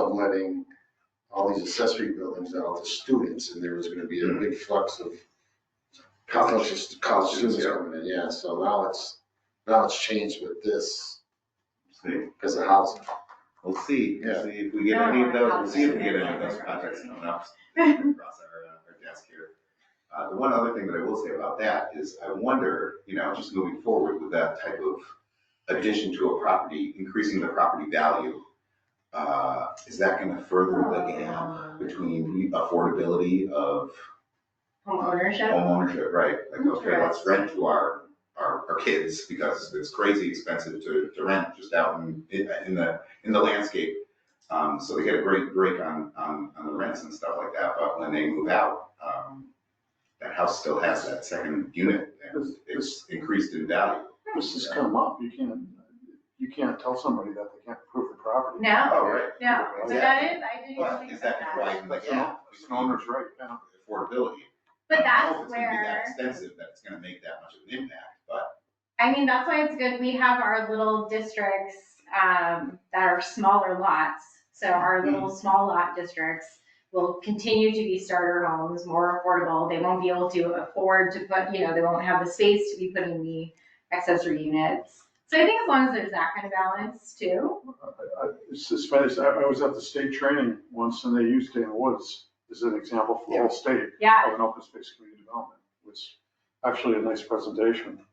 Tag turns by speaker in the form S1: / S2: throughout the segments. S1: subletting all these accessory buildings out to students, and there was gonna be a
S2: Hmm.
S1: big flux of college, college students coming in, yeah, so now it's, now it's changed with this,
S3: See,
S1: because of housing.
S3: we'll see,
S1: Yeah.
S3: see if we get any of those, we'll see if we get any of those projects coming up. Across our, uh, our desk here. Uh, the one other thing that I will say about that is I wonder, you know, just moving forward with that type of addition to a property, increasing the property value. Uh, is that gonna further the gap between affordability of
S4: Homeownership?
S3: homeownership, right? Like, okay, let's rent to our, our, our kids because it's crazy expensive to, to rent just out in, in the, in the landscape. Um, so they get a great break on, on, on the rents and stuff like that, but when they move out, um, that house still has that second unit and it's increased in value.
S2: This has come up, you can't, you can't tell somebody that they can't prove the property.
S4: No,
S3: Oh, right.
S4: no, but that is, I didn't
S3: But
S4: think
S3: is that
S4: about that.
S3: why, like,
S2: It's an-
S3: yeah,
S2: it's an owner's right, yeah.
S3: affordability.
S4: But
S3: I don't know if it's gonna be that
S4: that's where,
S3: Expensive, that it's gonna make that much of an impact, but
S4: I mean, that's why it's good, we have our little districts, um, that are smaller lots. So our
S3: Hmm.
S4: little small lot districts will continue to be starter homes, more affordable. They won't be able to afford to put, you know, they won't have the space to be putting the accessory units. So I think as long as there's that kind of balance too.
S2: I- I- It's it's funny, I, I was at the state training once and they used Dana Woods as an example for the whole state
S4: Yeah,
S2: of an open space community development. Was actually a nice presentation.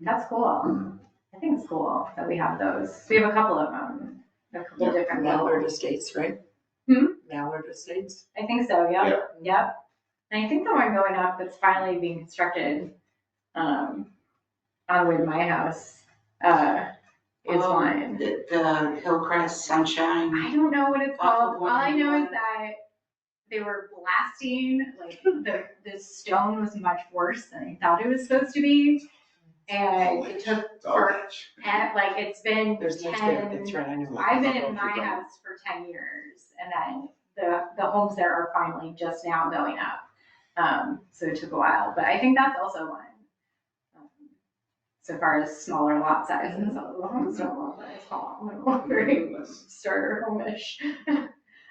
S4: That's cool. um, I think it's cool that we have those. We have a couple of them, a couple different
S5: Mallard
S4: levels.
S5: Estates, right?
S4: Hmm?
S5: Mallard Estates.
S4: I think so,
S3: Yeah.
S4: yep, yep. And I think the one going up that's finally being constructed, um, on the way to my house, uh, is
S6: Oh.
S4: one.
S6: The, the Hillcrest Sunshine.
S4: I don't know what it's
S6: Off of
S4: called. All I know is
S6: 191.
S4: that they were blasting, like, the, the stone was much worse than I thought it was supposed to be. And it took,
S3: it's all rich.
S4: and like, it's been
S5: There's no,
S4: ten.
S5: that's right, I know.
S4: I've been
S2: I don't
S4: in
S2: know if
S4: my
S2: you've done it.
S4: house for ten years and then the, the homes there are finally just now going up. Um, so it took a while, but I think that's also one. um, So far as smaller lot sizes, although the homes don't look very small, they're very starter home-ish.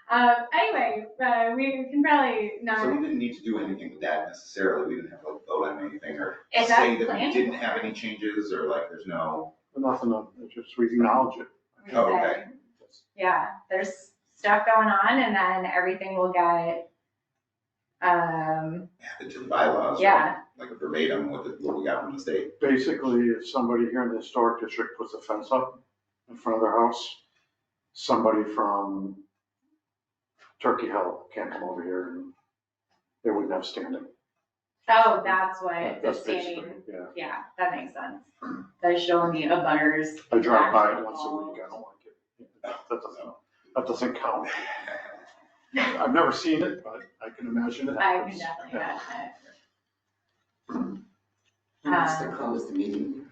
S4: Uh, anyway, uh, we can probably
S3: So we
S4: not,
S3: didn't need to do anything with that necessarily, we didn't have to like, vote on anything or
S4: Is that
S3: say that we
S4: planned?
S3: didn't have any changes or like there's no,
S2: But Nothing, of- it's just we acknowledge it.
S4: we
S3: Oh, okay.
S4: said, yeah, there's stuff going on and then everything will get, um,
S3: added to the bylaws. right?
S4: yeah,
S3: Like verbatim what, the- what we got from the state.
S2: Basically, if somebody here in the historic district puts a fence up in front of their house, somebody from Turkey Hill can't come over here and they wouldn't have standing.
S4: Oh, that's what the
S2: That's basically,
S4: standing,
S2: yeah.
S4: yeah, that makes sense. That should only be a butters.
S2: I drive by it once a week, I don't like it. That doesn't, that doesn't count. I've never seen it, but I can imagine it.
S4: I can
S2: happens. Yeah.
S4: definitely add that. Um,
S6: Who wants to close the meeting?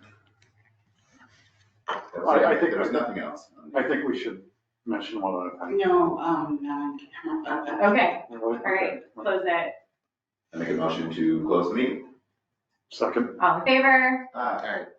S2: I- I think-
S3: There was nothing else.
S2: I think we should mention one other thing.
S6: No, um, no.
S4: Okay,
S2: All
S4: right. close it.
S3: I make a motion to close the meeting.
S2: Second.
S4: All in favor?
S3: Ah,
S1: Alright,